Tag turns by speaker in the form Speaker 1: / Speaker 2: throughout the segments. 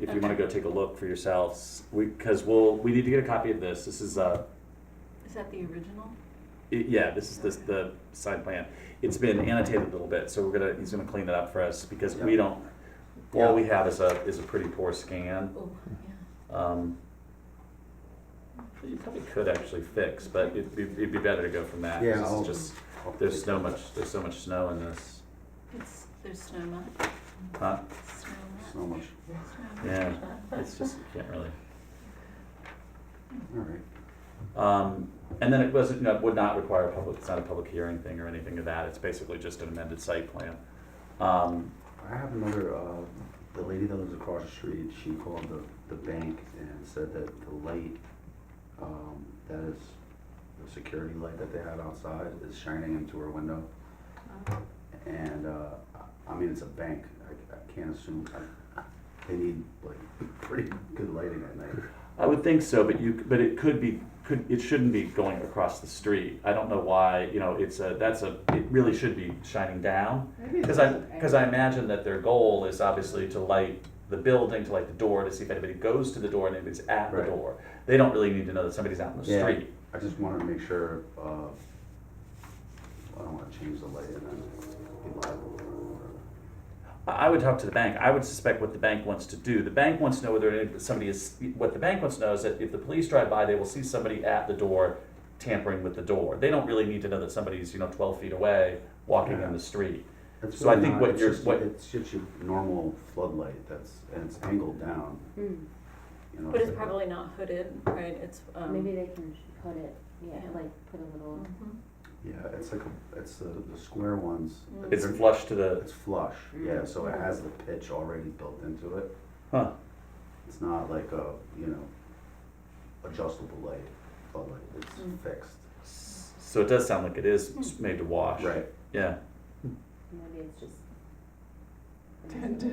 Speaker 1: if you want to go take a look for yourselves, we because we'll we need to get a copy of this. This is uh
Speaker 2: Is that the original?
Speaker 1: it, yeah this is this the side plan. It's been annotated a little bit, so we're gonna he's gonna clean it up for us because we don't.
Speaker 3: Yeah.
Speaker 1: All we have is a is a pretty poor scan.
Speaker 2: Oh, yeah.
Speaker 1: Um, you probably could actually fix, but it'd be, it'd be better to go from that. 'cause
Speaker 3: Yeah,
Speaker 1: this
Speaker 3: I'll-
Speaker 1: is just
Speaker 3: I'll
Speaker 1: there's
Speaker 3: take
Speaker 1: so
Speaker 3: that.
Speaker 1: much there's so much snow in this,
Speaker 2: It's, there's snow much,
Speaker 1: huh?
Speaker 2: snow
Speaker 3: So much,
Speaker 2: much, snow much.
Speaker 1: Yeah, it's just you can't really.
Speaker 3: all right.
Speaker 1: Um, and then it wasn't, no, it would not require a public, it's not a public hearing thing or anything of that, it's basically just an amended site plan. Um,
Speaker 3: I have another, uh, the lady that lives across the street, she called the, the bank and said that the light, um, that is, the security light that they had outside is shining into her window. And, uh, I- I mean, it's a bank, I, I can't assume, I, they need like pretty good lighting at night.
Speaker 1: I would think so, but you, but it could be, could, it shouldn't be going across the street, I don't know why, you know, it's a, that's a, it really should be shining down. Cause I, cause I imagine that their goal is obviously to light the building, to light the door, to see if anybody goes to the door and anybody's at the
Speaker 3: Right.
Speaker 1: door. They don't really need to know that somebody's out in the
Speaker 3: Yeah.
Speaker 1: street.
Speaker 3: I just wanted to make sure, uh, I don't wanna change the light and then be liable or
Speaker 1: I I would talk to the bank. I would suspect what the bank wants to do. The bank wants to know whether any- somebody is, what the bank wants to know is that if the police drive by, they will see somebody at the door tampering with the door. They don't really need to know that somebody's, you know, twelve feet away walking
Speaker 3: Yeah.
Speaker 1: in the street.
Speaker 3: It's
Speaker 1: So I
Speaker 3: really
Speaker 1: think
Speaker 3: not-
Speaker 1: what
Speaker 3: it's
Speaker 1: you're-
Speaker 3: just-
Speaker 1: what-
Speaker 3: It's just your normal floodlight that's, and it's angled down,
Speaker 4: Hmm.
Speaker 3: you know.
Speaker 2: But it's
Speaker 3: like-
Speaker 2: probably not hooded, right? It's, um.
Speaker 4: Maybe they can put it, yeah,
Speaker 2: Yeah.
Speaker 4: like put a little,
Speaker 2: Mhm.
Speaker 3: Yeah, it's like, a it's the, the square ones.
Speaker 2: Mm.
Speaker 1: It's
Speaker 3: They're-
Speaker 1: flush to the,
Speaker 3: It's flush, yeah,
Speaker 4: Mm.
Speaker 3: so it has the pitch already built into it.
Speaker 1: huh,
Speaker 3: It's not like a, you know, adjustable light, floodlight, it's
Speaker 2: Mm.
Speaker 3: fixed.
Speaker 1: S- so it does sound like it is s- made to wash.
Speaker 3: Right,
Speaker 1: Yeah.
Speaker 4: maybe it's just.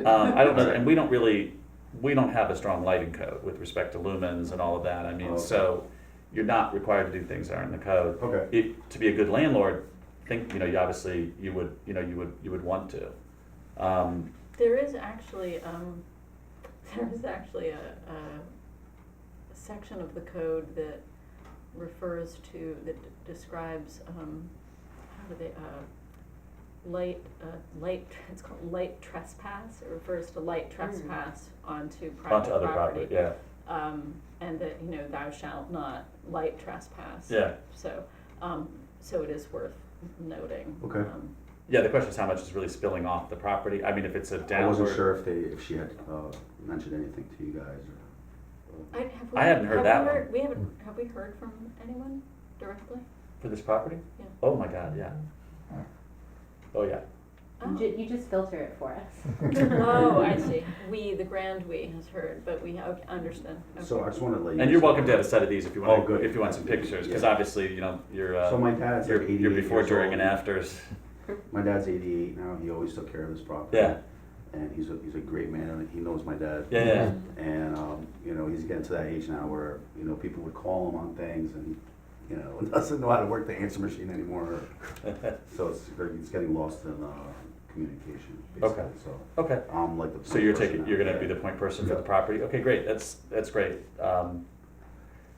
Speaker 1: Um, I don't know, and we don't really, we don't have a strong lighting code with respect to lumens and all of that. I mean,
Speaker 3: Oh, Okay.
Speaker 1: so you're not required to do things that aren't in the code.
Speaker 3: okay,
Speaker 1: it, to be a good landlord, think, you know, you obviously, you would, you know, you would, you would want to. Um,
Speaker 2: There is actually, um, there is actually a, a a section of the code that refers to, that d- describes, um, how do they, uh, light, uh, light, it's called light trespass, it refers to light trespass onto private
Speaker 1: onto other property, yeah,
Speaker 2: Um, and that, you know, thou shalt not light trespass.
Speaker 1: yeah.
Speaker 2: So, um, so it is worth noting.
Speaker 3: Okay.
Speaker 2: um,
Speaker 1: Yeah, the question is how much is really spilling off the property? I mean, if it's a
Speaker 3: I wasn't
Speaker 1: downward,
Speaker 3: sure if they, if she had, uh, mentioned anything to you guys
Speaker 2: I,
Speaker 3: or.
Speaker 2: have we,
Speaker 1: I hadn't heard
Speaker 2: have
Speaker 1: that
Speaker 2: we
Speaker 1: one.
Speaker 2: heard, we haven't, have we heard from anyone directly?
Speaker 1: for this property?
Speaker 2: Yeah.
Speaker 1: Oh my god, yeah. Oh, yeah.
Speaker 4: You ju- you just filter it for us.
Speaker 2: Oh, I see. We, the grand we has heard, but we, okay, understand.
Speaker 3: So I
Speaker 2: Okay.
Speaker 3: just wanted to let
Speaker 1: And
Speaker 3: you. guys
Speaker 1: you're
Speaker 3: know.
Speaker 1: welcome to have a set of these if you
Speaker 3: Oh,
Speaker 1: want,
Speaker 3: good.
Speaker 1: if you want some pictures, because
Speaker 3: Yeah.
Speaker 1: obviously, you know, you're,
Speaker 3: So
Speaker 1: uh,
Speaker 3: my dad's like
Speaker 1: you're,
Speaker 3: eighty-eight
Speaker 1: you're before,
Speaker 3: years
Speaker 1: during
Speaker 3: old.
Speaker 1: and afters.
Speaker 3: My dad's 88 now. He always took care of this property.
Speaker 1: Yeah.
Speaker 3: And he's a, he's a great man. and He knows my dad.
Speaker 1: Yeah, yeah.
Speaker 3: And, um, you know, he's getting to that age now where, you know, people would call him on things and, you know, doesn't know how to work the answer machine anymore. so it's, it's getting lost in uh, communication, basically.
Speaker 1: Okay.
Speaker 3: So
Speaker 1: Okay.
Speaker 3: I'm like the.
Speaker 1: So you're
Speaker 3: person
Speaker 1: taking,
Speaker 3: now.
Speaker 1: you're gonna be the point person for the
Speaker 3: Yeah.
Speaker 1: property? Okay, great, that's, that's great. Um,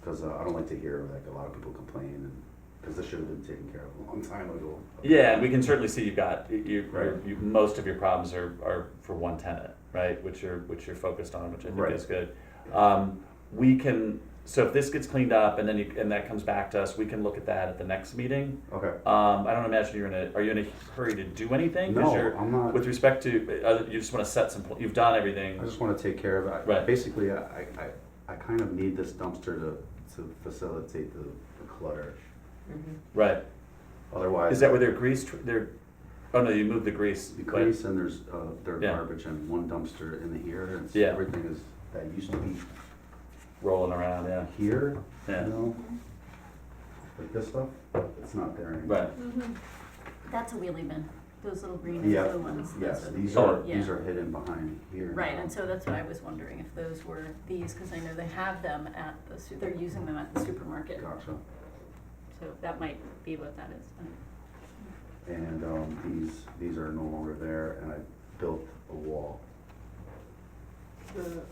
Speaker 3: Because uh, I don't like to hear, like, a lot of people complain because this should have been taken care of a long time ago.
Speaker 1: Yeah, and we can certainly see you've got, you, you,
Speaker 3: Right.
Speaker 1: you, most of your problems are, are for one tenant, right? Which you're, which you're focused on, which I think
Speaker 3: Right.
Speaker 1: is good. Um, we can, so if this gets cleaned up and then you, and that comes back to us, we can look at that at the next meeting.
Speaker 3: Okay.
Speaker 1: Um, I don't imagine you're in a, are you in a hurry to do anything? 'Cause
Speaker 3: No,
Speaker 1: you're-
Speaker 3: I'm not.
Speaker 1: With respect to, uh, you just wanna set some, pl- you've done everything.
Speaker 3: I just want to take care of it.
Speaker 1: Right.
Speaker 3: Basically, I, I, I kind of need this dumpster to, to facilitate the, the clutter.
Speaker 4: Mm-hmm.
Speaker 1: Right.
Speaker 3: Otherwise,
Speaker 1: Is that where their grease, tr- their, oh no, you moved the grease.
Speaker 3: the
Speaker 1: but-
Speaker 3: grease and there's, uh, their
Speaker 1: Yeah.
Speaker 3: garbage and one dumpster in the here. and it's-
Speaker 1: Yeah.
Speaker 3: Everything is, that used to be
Speaker 1: Rolling around, yeah,
Speaker 3: here, you
Speaker 1: yeah,
Speaker 3: know? Like this stuff, it's not there anymore.
Speaker 1: right.
Speaker 2: Mhm. That's a wheelie bin, those little green and
Speaker 3: Yeah,
Speaker 2: blue ones. those
Speaker 3: yes,
Speaker 2: are the-
Speaker 3: these
Speaker 1: Oh.
Speaker 3: are, these
Speaker 2: Yeah.
Speaker 3: are hidden behind here.
Speaker 2: Right,
Speaker 3: now.
Speaker 2: and so that's what I was wondering, if those were these, because I know they have them at the, su- they're using them at the supermarket.
Speaker 3: Gotcha.
Speaker 2: So that might be what that is. Um,
Speaker 3: And, um, these, these are no longer there and I built a wall.
Speaker 4: The